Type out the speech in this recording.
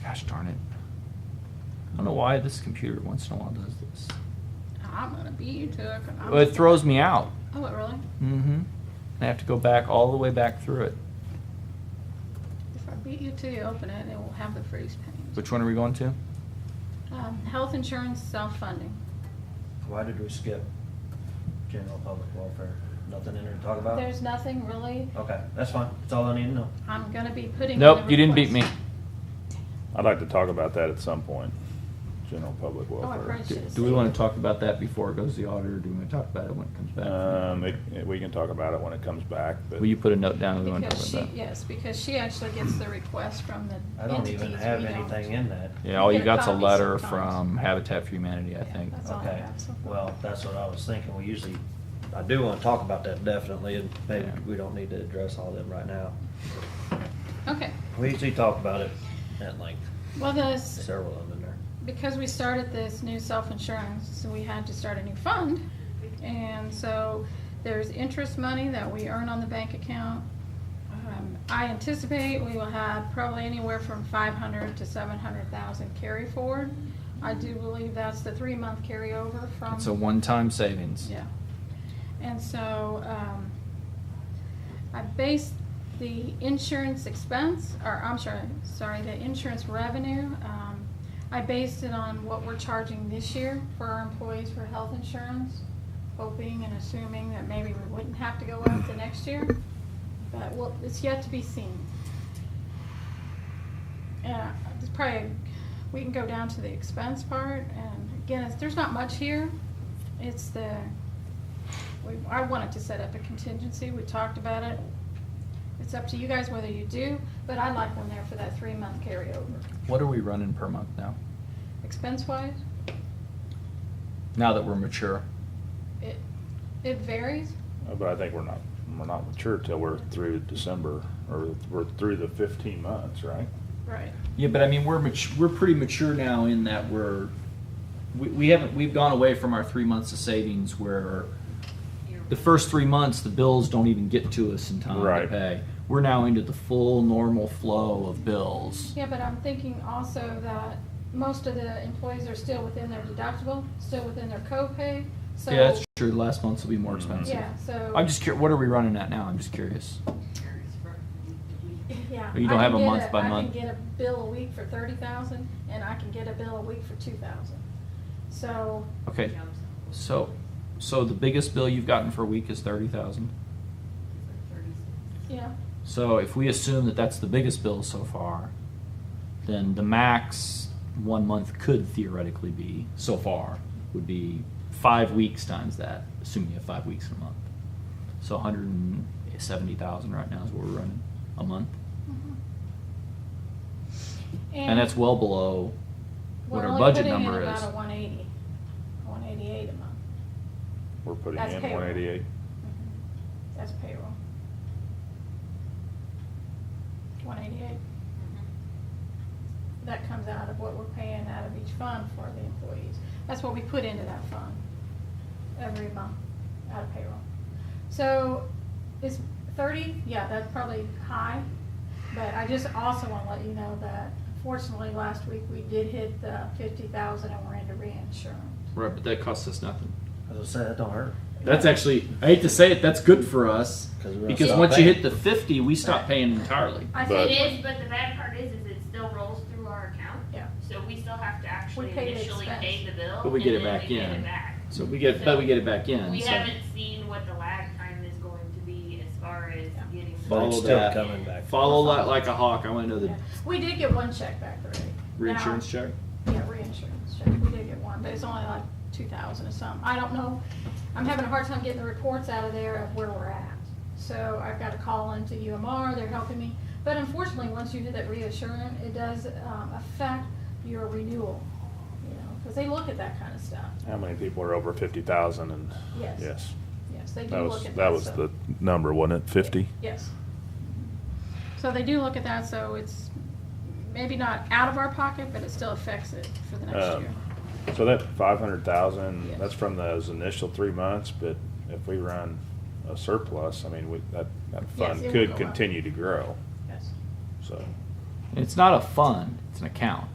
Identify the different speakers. Speaker 1: Gosh darn it. I don't know why this computer once in a while does this.
Speaker 2: I'm gonna beat you to it. 'cause I'm
Speaker 1: It throws me out.
Speaker 2: Oh, it really?
Speaker 1: Mm-hmm. I have to go back all the way back through it.
Speaker 2: If I beat you to you, open it, it will have the freeze panes.
Speaker 1: Which one are we going to?
Speaker 2: Um, health insurance self-funding.
Speaker 3: Why did we skip general public welfare? Nothing in there to talk
Speaker 1: Oh.
Speaker 3: about?
Speaker 2: There's nothing really.
Speaker 3: Okay, that's fine. That's all I need to know.
Speaker 2: I'm gonna be putting. in
Speaker 1: Nope,
Speaker 2: the
Speaker 1: you didn't beat me.
Speaker 2: request.
Speaker 4: I'd like to talk about that at some point, general public
Speaker 2: Oh, I
Speaker 4: welfare.
Speaker 1: Do,
Speaker 2: probably
Speaker 1: do we want to talk about that before it goes to the auditor? Do we want to talk about it when it comes back?
Speaker 4: Um, it, it- we can talk about it when it comes back, but.
Speaker 1: Will you put a note down that we want to talk
Speaker 2: Because she,
Speaker 1: about that?
Speaker 2: yes, because she actually gets the request from the
Speaker 3: I don't
Speaker 2: entities.
Speaker 3: even have
Speaker 2: we don't.
Speaker 3: anything in that.
Speaker 1: Yeah, all
Speaker 2: You
Speaker 1: you
Speaker 2: get a
Speaker 1: got's a
Speaker 2: copy
Speaker 1: letter
Speaker 2: sometimes.
Speaker 1: from Habitat for Humanity, I
Speaker 2: Yeah,
Speaker 1: think.
Speaker 2: that's all I
Speaker 3: Okay,
Speaker 2: have so far.
Speaker 3: well, that's what I was thinking. We usually, I do want to talk about that definitely, and maybe
Speaker 1: Yeah.
Speaker 3: we don't need to address all of them right now.
Speaker 2: Okay,
Speaker 3: We usually talk about it at length,
Speaker 2: well, this,
Speaker 3: several of them in there.
Speaker 2: because we started this new self-insurance, so we had to start a new fund. And so there's interest money that we earn on the bank account. Um, I anticipate we will have probably anywhere from five hundred to seven hundred thousand carry forward. I do believe that's the three-month carryover from.
Speaker 1: It's a one-time savings.
Speaker 2: Yeah. And so, um, I based the insurance expense, or I'm sorry, sorry, the insurance revenue, um, I based it on what we're charging this year for our employees for health insurance, hoping and assuming that maybe we wouldn't have to go up the next year. But well, it's yet to be seen. Yeah, it's probably, we can go down to the expense part, and again, it's- there's not much here. It's the, we, I wanted to set up a contingency, we talked about it. It's up to you guys whether you do, but I'd like one there for that three-month carryover.
Speaker 1: What are we running per month now?
Speaker 2: Expense-wise,
Speaker 1: Now that we're mature?
Speaker 2: it, it varies.
Speaker 4: Uh, But I think we're not, we're not mature till we're through December, or we're through the fifteen months, right?
Speaker 2: Right.
Speaker 1: Yeah, but I mean, we're mat- we're pretty mature now in that we're we, we haven't we've gone away from our three months of savings where the first three months the bills don't even get to us in time to
Speaker 4: Right.
Speaker 1: pay. We're now into the full normal flow of bills.
Speaker 2: Yeah, but I'm thinking also that most of the employees are still within their deductible, still within their copay, so.
Speaker 1: yeah, that's true. Last months will be more expensive.
Speaker 2: Yeah, so.
Speaker 1: I'm just curious. What are we running at now? I'm just curious.
Speaker 2: Yeah.
Speaker 1: You don't
Speaker 2: I
Speaker 1: have
Speaker 2: can
Speaker 1: a
Speaker 2: get
Speaker 1: month by month.
Speaker 2: I can get a bill a week for thirty thousand, and I can get a bill a week for two thousand. So,
Speaker 1: Okay, so so the biggest bill you've gotten for a week is thirty thousand.
Speaker 2: yeah,
Speaker 1: So if we assume that that's the biggest bill so far, then the max one month could theoretically be so far would be five weeks times that, assuming you have five weeks in a month. So 170,000 right now is what we're running a month, and,
Speaker 2: and
Speaker 1: that's well below what
Speaker 2: we're
Speaker 1: our
Speaker 2: only
Speaker 1: budget
Speaker 2: putting in
Speaker 1: number
Speaker 2: about
Speaker 1: is.
Speaker 2: a one eighty, one eighty-eight a month.
Speaker 4: We're putting
Speaker 2: That's
Speaker 4: in
Speaker 2: payroll.
Speaker 4: one eighty-eight.
Speaker 2: That's payroll. One eighty-eight. That comes out of what we're paying out of each fund for the employees. That's what we put into that fund every month out of payroll. So is thirty, yeah, that's probably high, but I just also want to let you know that fortunately, last week, we did hit the fifty thousand and we're into reinsurance.
Speaker 1: Right, but that costs us nothing.
Speaker 3: As I said, that don't hurt.
Speaker 1: That's actually I hate to say it, that's good for us
Speaker 3: 'Cause we're gonna
Speaker 1: because
Speaker 3: stop
Speaker 1: once you
Speaker 3: paying.
Speaker 1: hit the 50, we stop paying entirely.
Speaker 2: I
Speaker 4: But-
Speaker 2: think,
Speaker 5: It is, but the bad part is, is it still rolls through our account.
Speaker 2: yeah.
Speaker 5: So we still have to actually
Speaker 2: We pay the
Speaker 5: initially
Speaker 2: expense.
Speaker 5: pay the bill.
Speaker 1: But we get
Speaker 5: and
Speaker 1: it
Speaker 5: then
Speaker 1: back
Speaker 5: we get
Speaker 1: in.
Speaker 5: it back.
Speaker 1: So we get, but we get it back in.
Speaker 5: We
Speaker 1: so.
Speaker 5: haven't seen what the lag time is going to be as far as
Speaker 2: Yeah.
Speaker 5: getting.
Speaker 3: But
Speaker 5: the
Speaker 1: Follow
Speaker 3: it's
Speaker 5: money
Speaker 3: still
Speaker 1: that.
Speaker 5: back in.
Speaker 3: coming back.
Speaker 1: Follow like, like a hawk. I want to know the
Speaker 2: Yeah. We did get one check back already.
Speaker 1: reinsurance check.
Speaker 2: Now- Yeah, reinsurance check, we did get one, but it's only like two thousand or something, I don't know, I'm having a hard time getting the reports out of there of where we're at. So I've got to call into UMR, they're helping me, but unfortunately, once you do that reassurance, it does, um, affect your renewal, you know, because they look at that kind of stuff,
Speaker 4: How many people are over fifty thousand and,
Speaker 2: yes.
Speaker 4: yes,
Speaker 2: Yes, they do
Speaker 4: that
Speaker 2: look
Speaker 4: was,
Speaker 2: at that
Speaker 4: that was
Speaker 2: stuff.
Speaker 4: the number, wasn't it, fifty?
Speaker 2: Yes. So they do look at that, so it's maybe not out of our pocket, but it still affects it for the next
Speaker 4: Um,
Speaker 2: year.
Speaker 4: So that five hundred thousand,
Speaker 2: Yes.
Speaker 4: that's from those initial three months, but if we run a surplus, I mean, we, that, that fund
Speaker 2: it will
Speaker 4: could
Speaker 2: go up.
Speaker 4: continue to grow,
Speaker 2: Yes.
Speaker 4: so.
Speaker 1: It's not a fund. It's an account.